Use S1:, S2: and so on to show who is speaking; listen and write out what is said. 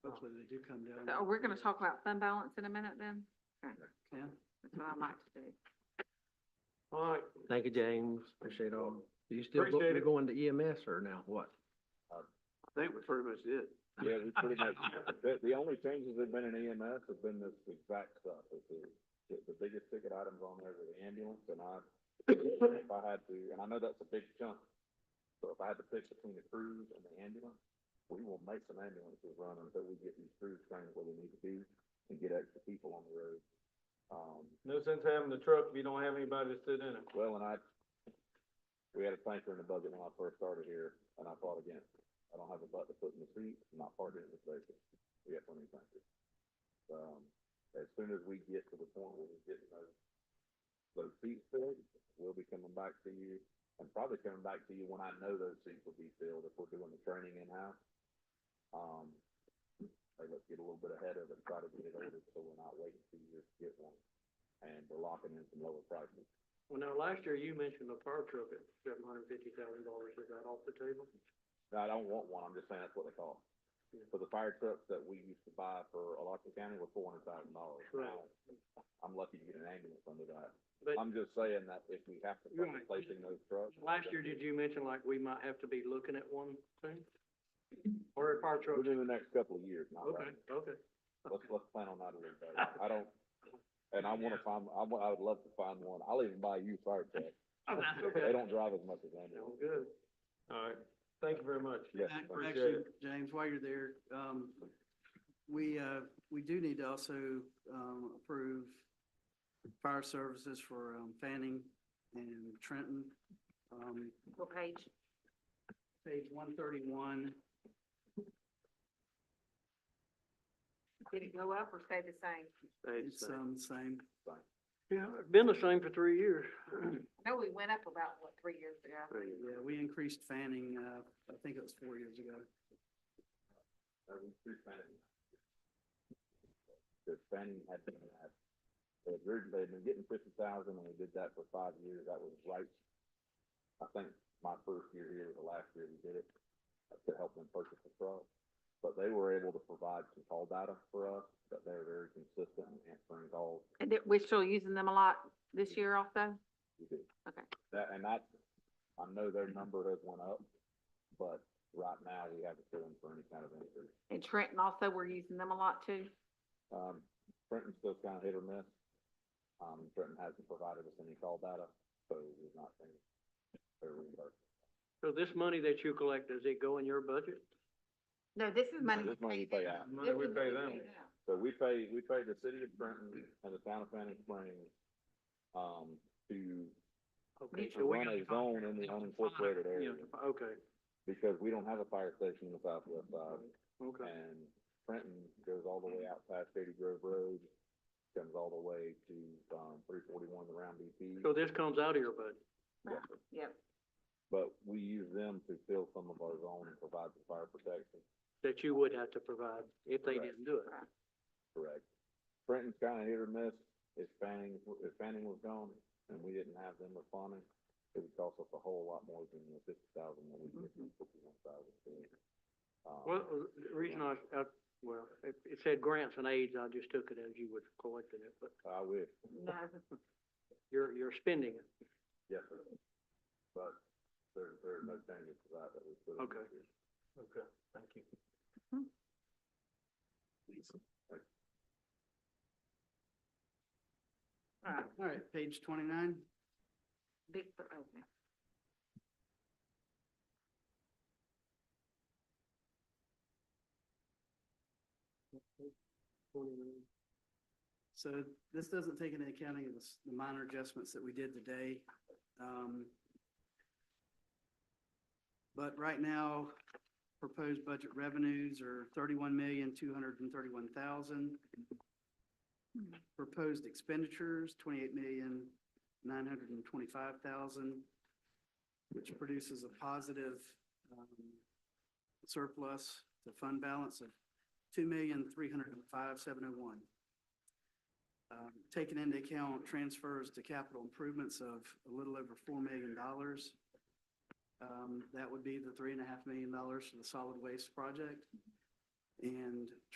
S1: Hopefully they do come down.
S2: So Oh, we're gonna talk about fund balance in a minute then? Okay,
S1: Yeah.
S2: That's what I like to do.
S3: All right,
S4: Thank you, James. Appreciate all. You still go-
S3: Appreciate
S4: you're
S3: it.
S4: going to EMS or now what?
S3: I think we pretty much did.
S5: Yeah, we pretty much, the, the only changes that have been in EMS have been this exact stuff, it's the, the, the biggest ticket items on there are the ambulance, and I, if I had to, and I know that's a big chunk, so if I had to pick between the crews and the ambulance, we will make some ambulances run until we get these crews trained where they need to be and get extra people on the road. Um,
S3: No sense having the truck if you don't have anybody to sit in it.
S5: well, and I, we had a tanker in the budget when I first started here, and I fought against it. I don't have a butt to put in the seat, my partner in the station, we have plenty of tankers. Um, as soon as we get to the point where we get those, those seats filled, we'll be coming back to you, and probably coming back to you when I know those seats will be filled, if we're doing the training in-house. Um, hey, let's get a little bit ahead of it, try to get it ordered, so we're not waiting two years to get one, and we're locking in some lower prices.
S1: Well, now, last year you mentioned the fire truck at seven hundred and fifty thousand dollars. Is that off the table?
S5: No, I don't want one, I'm just saying that's what they cost.
S1: Yeah.
S5: For the fire trucks that we used to buy for Alachua County were four hundred thousand dollars.
S1: Right.
S5: I'm lucky to get an ambulance under that.
S1: But
S5: I'm just saying that if we have to start
S1: Right.
S5: replacing those trucks.
S1: last year, did you mention like we might have to be looking at one soon? Or a fire truck?
S5: Within the next couple of years, not
S1: Okay,
S5: right.
S1: okay.
S5: Let's, let's plan on that a little better. I don't, and I wanna find, I wa- I would love to find one. I'll even buy a used fire truck.
S1: Oh, that's okay.
S5: They don't drive as much as
S1: Sounds
S5: ambulance.
S1: good.
S3: All right, thank you very much.
S5: Yes.
S1: Ac-
S5: thank
S1: Actually,
S5: you.
S1: James, while you're there, um, we, uh, we do need to also, um, approve fire services for, um, Fanning and Trenton. Um,
S2: What page?
S1: page one thirty-one,
S2: Did it go up or stay the same?
S1: it's, um, same.
S3: Yeah, been the same for three years.
S2: I know we went up about, what, three years ago?
S1: Yeah, we increased Fanning, uh, I think it was four years ago.
S5: Uh, we threw Fanning. Cause Fanning had been, at- they had rid- they had been getting fifty thousand and we did that for five years, that was right. I think my first year here was the last year we did it, to help them purchase the truck. But they were able to provide some call data for us, but they were very consistent in answering calls.
S2: And that we're still using them a lot this year also?
S5: We do.
S2: Okay.
S5: That, and that, I know their number has went up, but right now we haven't put in for any kind of increase.
S2: And Trenton also, we're using them a lot too?
S5: Um, Trenton's still kind of hit or miss. Um, Trenton hasn't provided us any call data, so we've not seen their reimbursement.
S3: So this money that you collect, does it go in your budget?
S2: No, this is money.
S5: This money you pay out.
S3: Money we
S2: This is
S3: pay
S2: money
S3: them.
S5: So we pay, we pay the city of Trenton and the town of Fanning Springs, um, to,
S1: Okay,
S2: Mutual
S1: so we
S5: run
S1: got
S5: a
S1: the
S5: zone
S1: contract.
S5: in the
S1: Yeah,
S5: unincorporated
S1: yeah,
S5: area.
S1: Okay,
S5: because we don't have a fire station in the southwest side.
S1: okay.
S5: And Trenton goes all the way out past Shady Grove Road, comes all the way to, um, three forty-one around BP.
S1: So this comes out of your budget?
S2: Yep,
S5: But we use them to fill some of our zone and provide the fire protection.
S1: that you would have to provide if they
S5: Correct.
S1: didn't do it.
S5: Correct. Trenton's kind of hit or miss. If Fanning, if Fanning was gone and we didn't have them responding, it would cost us a whole lot more than the fifty thousand that we get from fifty-one thousand.
S3: Mm-hmm.
S5: Um,
S3: Well, uh, the reason I, I, well, it, it said grants and aids, I just took it as you were collecting it, but
S5: I wish,
S2: no,
S3: you're, you're spending it.
S5: yes, sir. But there, there are no changes to that that we put in.
S3: Okay. Okay, thank you.
S2: alright,
S1: All right, page twenty-nine,
S2: big, but okay.
S1: so this doesn't take into accounting of the s- the minor adjustments that we did today. Um, But right now, proposed budget revenues are thirty-one million, two hundred and thirty-one thousand. Proposed expenditures, twenty-eight million, nine hundred and twenty-five thousand, which produces a positive um, surplus to fund balance of two million, three hundred and five, seven oh one. Uh, Taking into account transfers to capital improvements of a little over four million dollars. um, That would be the three and a half million dollars for the solid waste project. And